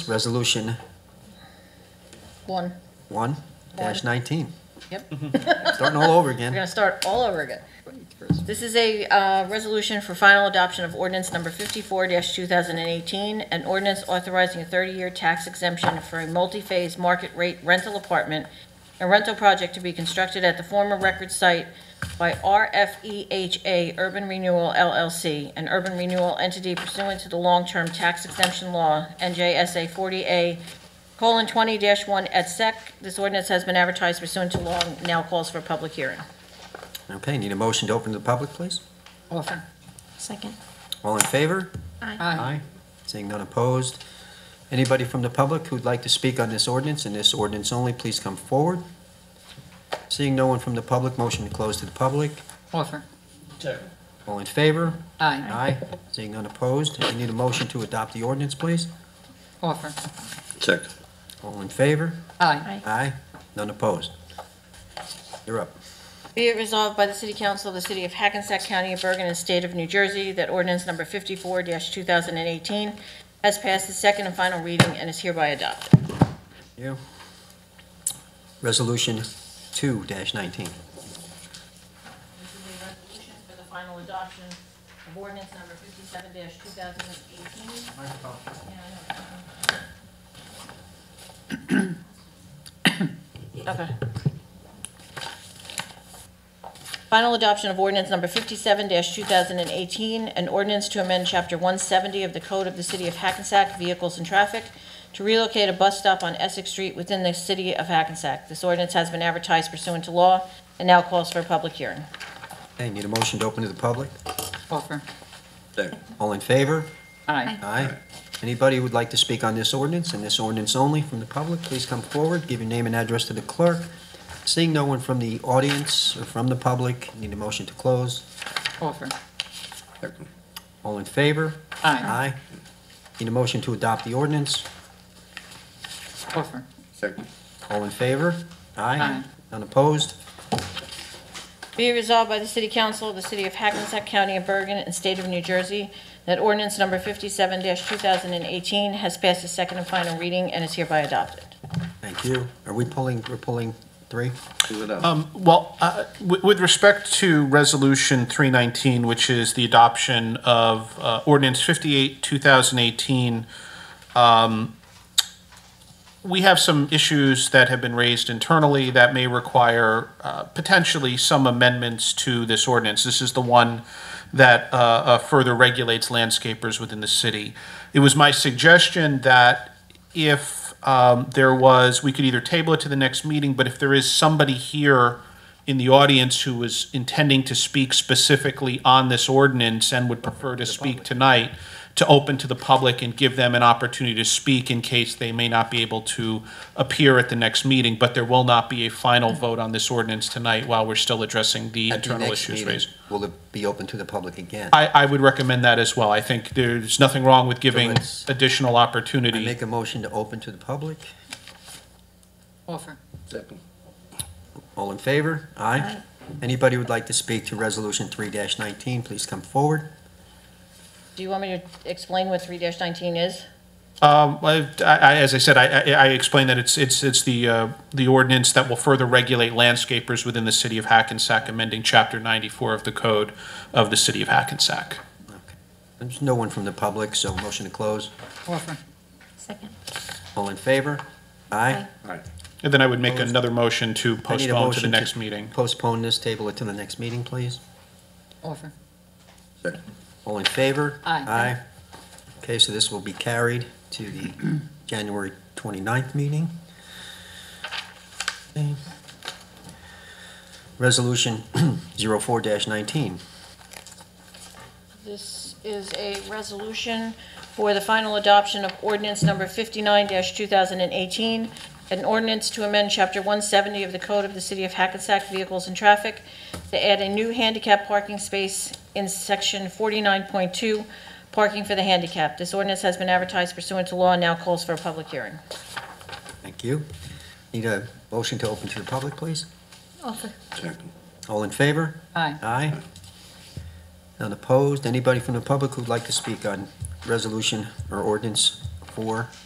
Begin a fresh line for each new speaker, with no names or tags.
Resolution
One,
one dash nineteen.
yep.
Starting all over
We're
again.
gonna start all over again. This is a uh, resolution for final adoption of ordinance number 54-2018, an ordinance authorizing a 30-year tax exemption for a multi-phase market rate rental apartment, a rental project to be constructed at the former record site by RFEHA Urban Renewal LLC, an urban renewal entity pursuant to the long-term tax exemption law, NJSA 40A, colon 20-1 et sec. This ordinance has been advertised pursuant to law and now calls for a public hearing.
Okay, need a motion to open to the public, please?
Offer.
Second.
All in favor?
Aye.
Seeing none opposed. Anybody from the public who'd like to speak on this ordinance and this ordinance only, please come forward. Seeing no one from the public, motion to close to the public.
Offer.
All in favor?
Aye.
Aye. Seeing none opposed. I need a motion to adopt the ordinance, please.
Offer.
Check.
All in favor?
Aye.
Aye. None opposed. You're up.
Be it resolved by the City Council of the City of Hackensack County of Bergen and State of New Jersey that ordinance number 54-2018 has passed its second and final reading and is hereby adopted.
You. Resolution two dash nineteen.
This is a resolution for the final adoption of ordinance number 57-2018. Okay. Final adoption of ordinance number 57-2018, an ordinance to amend Chapter 170 of the Code of the City of Hackensack Vehicles and Traffic to relocate a bus stop on Essex Street within the city of Hackensack. This ordinance has been advertised pursuant to law and now calls for a public hearing.
Okay, need a motion to open to the public?
Offer.
Second.
All in favor?
Aye.
Aye. Anybody who would like to speak on this ordinance and this ordinance only from the public, please come forward, give your name and address to the clerk. Seeing no one from the audience or from the public, need a motion to close.
Offer.
Second.
All in favor?
Aye.
Need a motion to adopt the ordinance.
Offer.
Second.
All in favor?
Aye.
None opposed?
Be it resolved by the City Council of the City of Hackensack County of Bergen and State of New Jersey that ordinance number 57-2018 has passed its second and final reading and is hereby adopted.
Thank you. Are we pulling, we're pulling three?
Do it up.
Um, Well, uh, wi- with respect to Resolution 319, which is the adoption of uh, Ordinance 58, 2018, um, we have some issues that have been raised internally that may require uh, potentially some amendments to this ordinance. This is the one that uh, uh, further regulates landscapers within the city. It was my suggestion that if um, there was, we could either table it to the next meeting, but if there is somebody here in the audience who was intending to speak specifically on this ordinance and would prefer to speak tonight, to open to the public and give them an opportunity to speak in case they may not be able to appear at the next meeting, but there will not be a final vote on this ordinance tonight while we're still addressing the
At the
internal
next
issues
meeting,
raised.
Will it be open to the public again?
I, I would recommend that as well. I think there's nothing wrong with giving
let's-
additional
I
opportunity.
make a motion to open to the public.
Offer.
Second.
All in favor? Aye. Anybody who'd like to speak to Resolution 3-19, please come forward.
Do you want me to explain what 3-19 is?
Um, I, I, as I said, I, I I explained that it's, it's, it's the, uh, the ordinance that will further regulate landscapers within the city of Hackensack, amending chapter ninety-four of the code of the city of Hackensack.
There's no one from the public, so motion to close.
Offer.
Second.
All in favor? Aye.
All right.
And then I would make
Opposed?
another motion to
I need a
postpone to the
motion
next meeting.
Postpone this, table it to the next meeting, please.
Offer.
Second.
All in favor?
Aye.
Aye. Okay, so this will be carried to the January 29th meeting. Okay. Resolution 04-19.
This is a resolution for the final adoption of ordinance number 59-2018, an ordinance to amend Chapter 170 of the Code of the City of Hackensack Vehicles and Traffic to add a new handicap parking space in Section 49.2, parking for the handicapped. This ordinance has been advertised pursuant to law and now calls for a public hearing.
Thank you. Need a motion to open to the public, please?
Offer.
Second.
All in favor?
Aye.
Aye. None opposed? Anybody from the public who'd like to speak on resolution or ordinance four